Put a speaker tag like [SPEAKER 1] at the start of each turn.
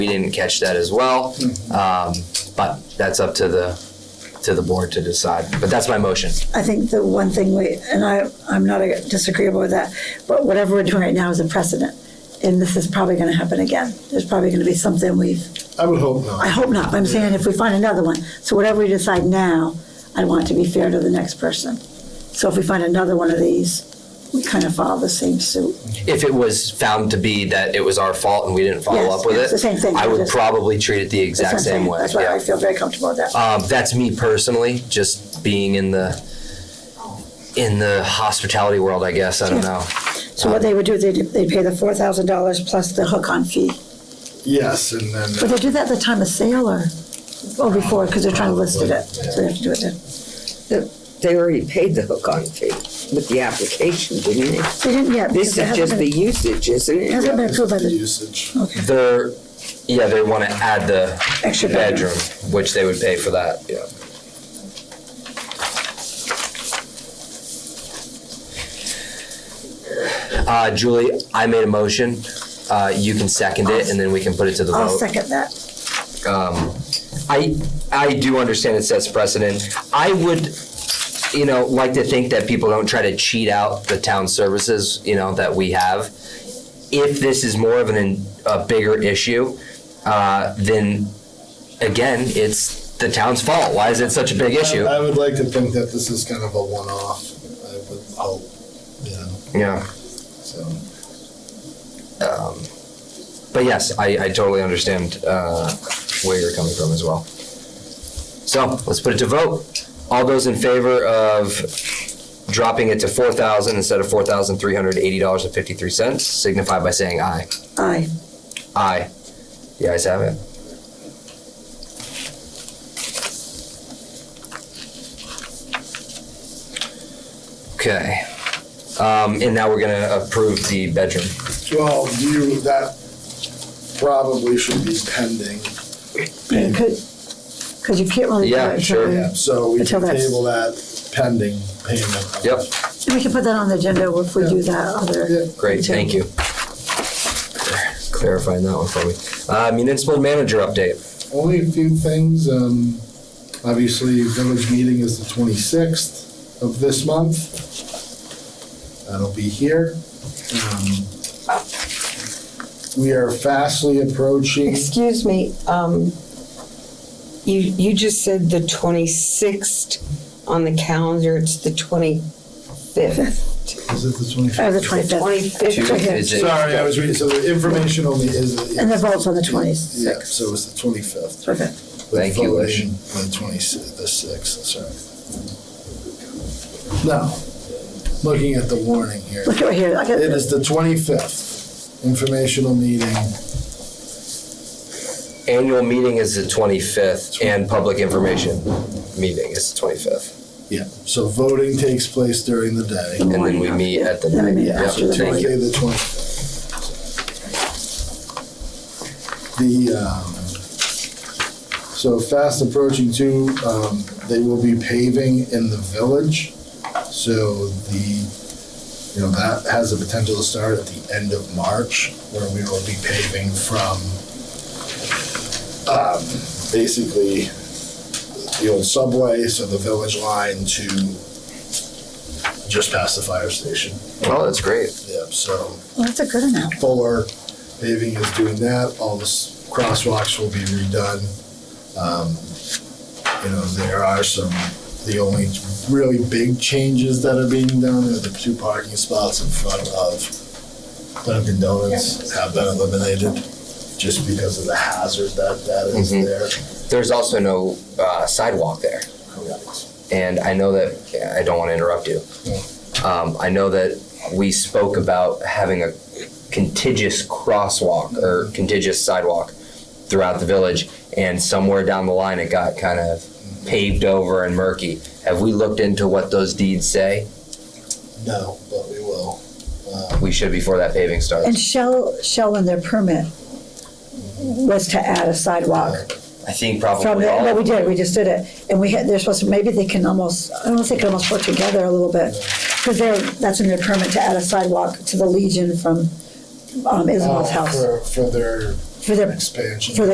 [SPEAKER 1] We didn't catch that as well. Um, But that's up to the, to the board to decide. But that's my motion.
[SPEAKER 2] I think the one thing we, and I, I'm not disagreeable with that, but whatever we're doing right now is a precedent. And this is probably gonna happen again. There's probably gonna be something we've,
[SPEAKER 3] I would hope not.
[SPEAKER 2] I hope not, but I'm saying if we find another one. So whatever we decide now, I want it to be fair to the next person. So if we find another one of these, we kind of follow the same suit.
[SPEAKER 1] If it was found to be that it was our fault and we didn't follow
[SPEAKER 2] Yes,
[SPEAKER 1] up with it.
[SPEAKER 2] it's the same thing,
[SPEAKER 1] I would
[SPEAKER 2] just-
[SPEAKER 1] probably treat it the
[SPEAKER 2] That's
[SPEAKER 1] exact
[SPEAKER 2] what I'm saying.
[SPEAKER 1] same way.
[SPEAKER 2] That's why
[SPEAKER 1] yeah.
[SPEAKER 2] I feel very comfortable with that.
[SPEAKER 1] Um, that's me personally, just being in the in the hospitality world, I guess. I don't know.
[SPEAKER 2] So what they would do, they'd, they'd pay the four thousand dollars plus the hook-on fee.
[SPEAKER 3] Yes, and then. uh,
[SPEAKER 2] But they do that at the time of sale or, or before, because they're trying to list it, at- so they have to do it then.
[SPEAKER 4] They already paid the hook-on fee with the application, didn't they?
[SPEAKER 2] They didn't yet. because
[SPEAKER 4] This
[SPEAKER 2] it
[SPEAKER 4] is
[SPEAKER 2] hasn't
[SPEAKER 4] just the
[SPEAKER 2] been-
[SPEAKER 4] usage, isn't
[SPEAKER 2] It
[SPEAKER 4] it?
[SPEAKER 2] hasn't been approved by
[SPEAKER 3] The
[SPEAKER 2] the
[SPEAKER 3] usage.
[SPEAKER 1] They're yeah, they want to add the
[SPEAKER 2] extra bedroom.
[SPEAKER 1] bedroom, which they would pay for that. Yeah. Uh, Julie, I made a motion. Uh, you can second it, and then we can put it to the
[SPEAKER 2] I'll
[SPEAKER 1] vote.
[SPEAKER 2] second that.
[SPEAKER 1] I, I do understand it sets precedent. I would, you know, like to think that people don't try to cheat out the town services, you know, that we have. If this is more of an, a bigger issue, uh, then again, it's the town's fault. Why is it such a big issue?
[SPEAKER 3] I would like to think that this is kind of a one-off, I would hope, you know,
[SPEAKER 1] Yeah.
[SPEAKER 3] so.
[SPEAKER 1] But yes, I, I totally understand, uh, where you're coming from as well. So let's put it to vote. All those in favor of dropping it to four thousand instead of four thousand three hundred eighty dollars and fifty-three cents signify by saying aye.
[SPEAKER 2] Aye.
[SPEAKER 1] Aye. The ayes have it. Okay. Um, and now we're gonna approve the bedroom.
[SPEAKER 3] Well, you, that probably should be pending,
[SPEAKER 2] You could, because you can't really. do
[SPEAKER 1] Yeah,
[SPEAKER 2] it until
[SPEAKER 1] sure.
[SPEAKER 2] we-
[SPEAKER 3] yeah, so we
[SPEAKER 2] Until
[SPEAKER 3] can
[SPEAKER 2] that's-
[SPEAKER 3] table that pending payment.
[SPEAKER 1] Yep.
[SPEAKER 2] And we can put that on the agenda if we do that other.
[SPEAKER 1] Great, thank you. Clarifying that one for me. Uh, municipal manager update.
[SPEAKER 3] Only a few things, um, obviously, village meeting is the twenty-sixth of this month. That'll be here. Um, We are fastly approaching.
[SPEAKER 4] Excuse me, um, you, you just said the twenty-sixth on the calendar, it's the twenty-fifth.
[SPEAKER 3] Is it the 25th?
[SPEAKER 2] Or Uh, the
[SPEAKER 4] The
[SPEAKER 2] twenty-fifth.
[SPEAKER 4] twenty-fifth,
[SPEAKER 1] Is it-
[SPEAKER 3] Sorry, I was reading, so the information only is.
[SPEAKER 2] And the vote's on the
[SPEAKER 3] Yeah,
[SPEAKER 2] twenty-sixth.
[SPEAKER 3] so it's the twenty-fifth.
[SPEAKER 2] Okay.
[SPEAKER 1] Thank you, Wish.
[SPEAKER 3] The twenty, the sixth, sorry. Now, looking at the warning here,
[SPEAKER 2] Look right here, I got,
[SPEAKER 3] it is the twenty-fifth, informational meeting,
[SPEAKER 1] Annual meeting is the twenty-fifth and public information meeting is the twenty-fifth.
[SPEAKER 3] yeah, so voting takes place during the day.
[SPEAKER 1] And then we meet at the.
[SPEAKER 2] Then we meet
[SPEAKER 1] Yep,
[SPEAKER 2] after the
[SPEAKER 1] thank
[SPEAKER 3] Tuesday,
[SPEAKER 1] you.
[SPEAKER 3] the twenty-fifth. The, um, so fast approaching too, um, they will be paving in the village. So the, you know, that has the potential to start at the end of March, where we will be paving from, um, basically the old subway, so the village line to just past the fire station.
[SPEAKER 1] Oh, that's great.
[SPEAKER 3] Yep, so
[SPEAKER 2] well, that's a good amount.
[SPEAKER 3] Fuller paving is doing that, all the s- crosswalks will be redone. Um, You know, there are some, the only really big changes that are being done are the two parking spots in front of Dunkin' Donuts have been eliminated just because of the hazard that that is
[SPEAKER 2] Mm-hmm.
[SPEAKER 1] Mhm.
[SPEAKER 3] there.
[SPEAKER 1] There's also no uh, sidewalk there.
[SPEAKER 3] Correct.
[SPEAKER 1] And I know that, I don't want to interrupt you. Um, I know that we spoke about having a contiguous crosswalk or contiguous sidewalk throughout the village, and somewhere down the line, it got kind of paved over and murky. Have we looked into what those deeds say?
[SPEAKER 3] No, but we will.
[SPEAKER 1] We should before that paving
[SPEAKER 2] And
[SPEAKER 1] starts.
[SPEAKER 2] Shell, Shell in their permit was to add a sidewalk.
[SPEAKER 1] I think
[SPEAKER 2] From
[SPEAKER 1] probably
[SPEAKER 2] the,
[SPEAKER 1] all.
[SPEAKER 2] no, we did, we just did it, and we had, they're supposed to, maybe they can almost, I don't know if they can almost work together a little bit, because they're, that's in their permit to add a sidewalk to the Legion from, um, Isabel's
[SPEAKER 3] Uh,
[SPEAKER 2] house.
[SPEAKER 3] For, for their
[SPEAKER 2] for the
[SPEAKER 3] expansion.
[SPEAKER 2] for the